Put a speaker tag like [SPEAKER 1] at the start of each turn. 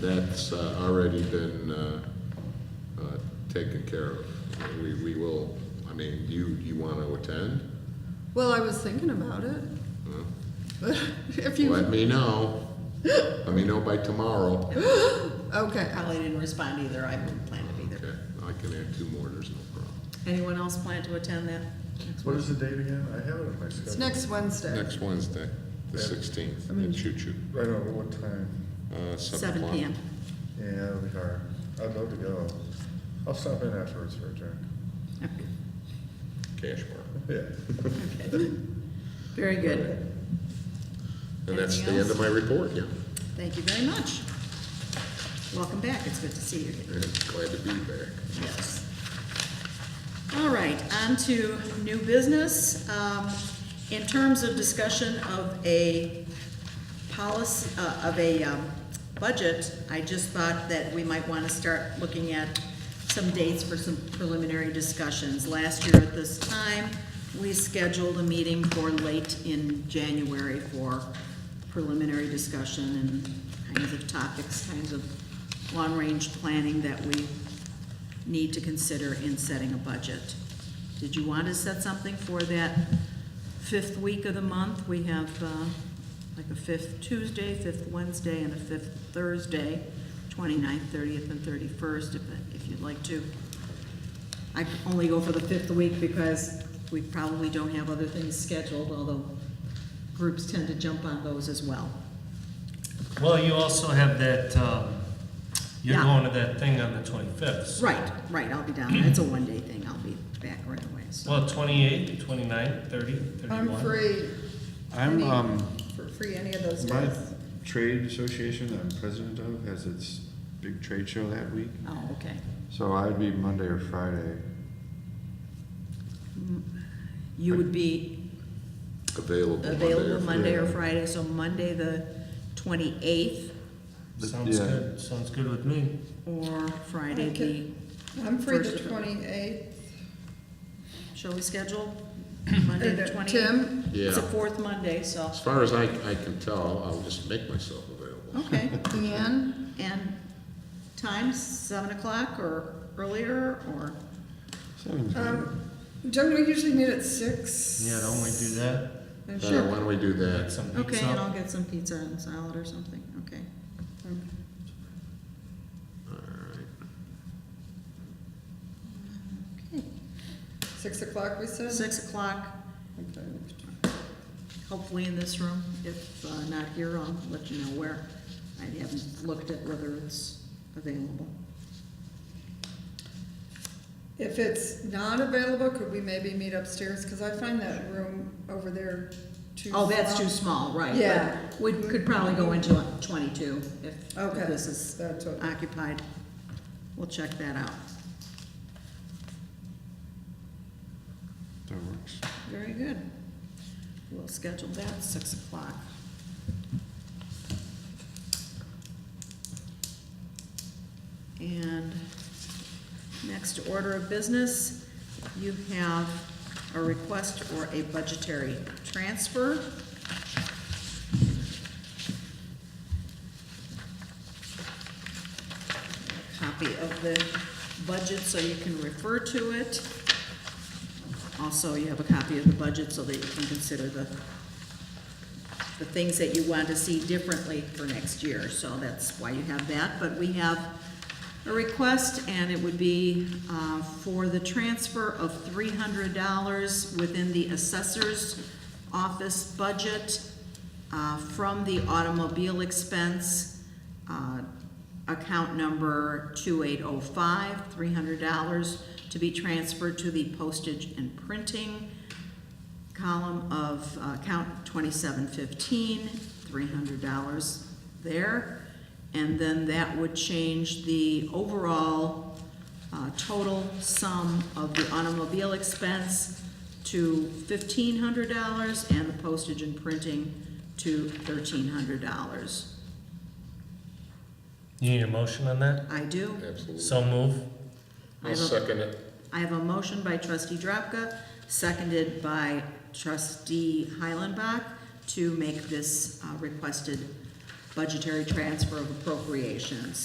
[SPEAKER 1] that's uh, already been uh, uh, taken care of. We, we will, I mean, you, you want to attend?
[SPEAKER 2] Well, I was thinking about it.
[SPEAKER 1] Huh?
[SPEAKER 2] If you,
[SPEAKER 1] Let me know. Let me know by tomorrow.
[SPEAKER 2] okay,
[SPEAKER 3] Probably didn't respond either, I didn't plan to be there.
[SPEAKER 1] Okay, I can add two more, there's no problem.
[SPEAKER 3] Anyone else plan to attend that?
[SPEAKER 4] What is the date again? I have it on my
[SPEAKER 2] it's
[SPEAKER 4] schedule.
[SPEAKER 2] next
[SPEAKER 3] Uh,
[SPEAKER 2] Wednesday.
[SPEAKER 1] Next Wednesday, the 16th, at Choo Choo,
[SPEAKER 4] I don't know what time.
[SPEAKER 1] uh, 7
[SPEAKER 3] Seven
[SPEAKER 1] o'clock.
[SPEAKER 3] PM.
[SPEAKER 4] Yeah, it'll be hard. I'd love to go. I'll stop in afterwards for a drink.
[SPEAKER 1] Cash bar.
[SPEAKER 4] Yeah.
[SPEAKER 3] Okay. Very good,
[SPEAKER 1] And that's the
[SPEAKER 3] Anything
[SPEAKER 1] end of my report, yeah.
[SPEAKER 3] thank you very much. Welcome back, it's good to see you.
[SPEAKER 1] And Glad to be back.
[SPEAKER 3] Yes. All right, on to new business. Um, In terms of discussion of a policy, uh, of a um, budget, I just thought that we might want to start looking at some dates for some preliminary discussions. Last year at this time, we scheduled a meeting for late in January for preliminary discussion and kinds of topics, kinds of long-range planning that we need to consider in setting a budget. Did you want to set something for that fifth week of the month? We have uh, like a fifth Tuesday, fifth Wednesday, and a fifth Thursday, 29th, 30th, and 31st, if if you'd like to. I only go for the fifth week because we probably don't have other things scheduled, although groups tend to jump on those as well.
[SPEAKER 5] Well, you also have that, um, you're
[SPEAKER 3] Yeah.
[SPEAKER 5] going to that thing on the 25th.
[SPEAKER 3] Right, right, I'll be down. It's a one-day thing. I'll be back right away, so.
[SPEAKER 5] Well, 28, 29, 30,
[SPEAKER 2] I'm
[SPEAKER 5] 31.
[SPEAKER 2] free,
[SPEAKER 6] I'm,
[SPEAKER 2] Any-
[SPEAKER 6] um,
[SPEAKER 2] for free any of those
[SPEAKER 6] my
[SPEAKER 2] days.
[SPEAKER 6] trade association that I'm president of has its big trade show that week,
[SPEAKER 3] Oh, okay.
[SPEAKER 6] so I'd be Monday or Friday.
[SPEAKER 3] You would be
[SPEAKER 1] Available Monday or
[SPEAKER 3] available Monday or
[SPEAKER 6] Friday.
[SPEAKER 3] Friday, so Monday the twenty-eighth
[SPEAKER 6] The-
[SPEAKER 5] Sounds
[SPEAKER 6] yeah.
[SPEAKER 5] good, sounds good with me.
[SPEAKER 3] or Friday the,
[SPEAKER 2] Okay. I'm free the
[SPEAKER 3] First of-
[SPEAKER 2] twenty-eighth.
[SPEAKER 3] shall we schedule? Monday the twenty-eighth?
[SPEAKER 2] Tim,
[SPEAKER 3] It's a
[SPEAKER 1] Yeah.
[SPEAKER 3] fourth Monday, so,
[SPEAKER 1] As far as I, I can tell, I'll just make myself available.
[SPEAKER 3] okay.
[SPEAKER 2] Ian,
[SPEAKER 3] And times, seven o'clock or earlier, or,
[SPEAKER 6] Seven's good.
[SPEAKER 2] um, don't we usually meet at six?
[SPEAKER 5] Yeah, don't we do that?
[SPEAKER 2] And
[SPEAKER 1] Uh,
[SPEAKER 2] sure.
[SPEAKER 1] Why don't we do
[SPEAKER 5] Get
[SPEAKER 1] that?
[SPEAKER 5] some
[SPEAKER 3] okay,
[SPEAKER 5] pizza.
[SPEAKER 3] and I'll get some pizza and salad or something, okay.
[SPEAKER 1] All right.
[SPEAKER 3] Okay.
[SPEAKER 2] Six o'clock, we said?
[SPEAKER 3] Six o'clock,
[SPEAKER 2] Okay.
[SPEAKER 3] hopefully in this room. If uh, not here, I'll let you know where. I haven't looked at whether it's available.
[SPEAKER 2] If it's not available, could we maybe meet upstairs? Because I find that room over there too.
[SPEAKER 3] Oh, that's
[SPEAKER 2] small.
[SPEAKER 3] too small, right.
[SPEAKER 2] Yeah.
[SPEAKER 3] but We could probably go into a twenty-two if
[SPEAKER 2] Okay.
[SPEAKER 3] if this is
[SPEAKER 2] That's what-
[SPEAKER 3] occupied. We'll check that out.
[SPEAKER 6] That works.
[SPEAKER 3] Very good. We'll schedule that, six o'clock. And next order of business, you have a request for a budgetary transfer. Copy of the budget so you can refer to it. Also, you have a copy of the budget so that you can consider the, the things that you want to see differently for next year, so that's why you have that. But we have a request, and it would be uh, for the transfer of three hundred dollars within the assessor's office budget uh, from the automobile expense uh, account number 2805, $300 to be transferred to the postage and printing column of uh, account 2715, $300 there. And then that would change the overall uh, total sum of the automobile expense to $1,500 and the postage and printing to $1,300.
[SPEAKER 5] You need a motion on that?
[SPEAKER 3] I do.
[SPEAKER 1] Absolutely.
[SPEAKER 5] So move.
[SPEAKER 1] I'll
[SPEAKER 3] I have a-
[SPEAKER 1] second it.
[SPEAKER 3] I have a motion by trustee Drapka, seconded by trustee Heilenbach to make this uh, requested budgetary transfer of appropriations.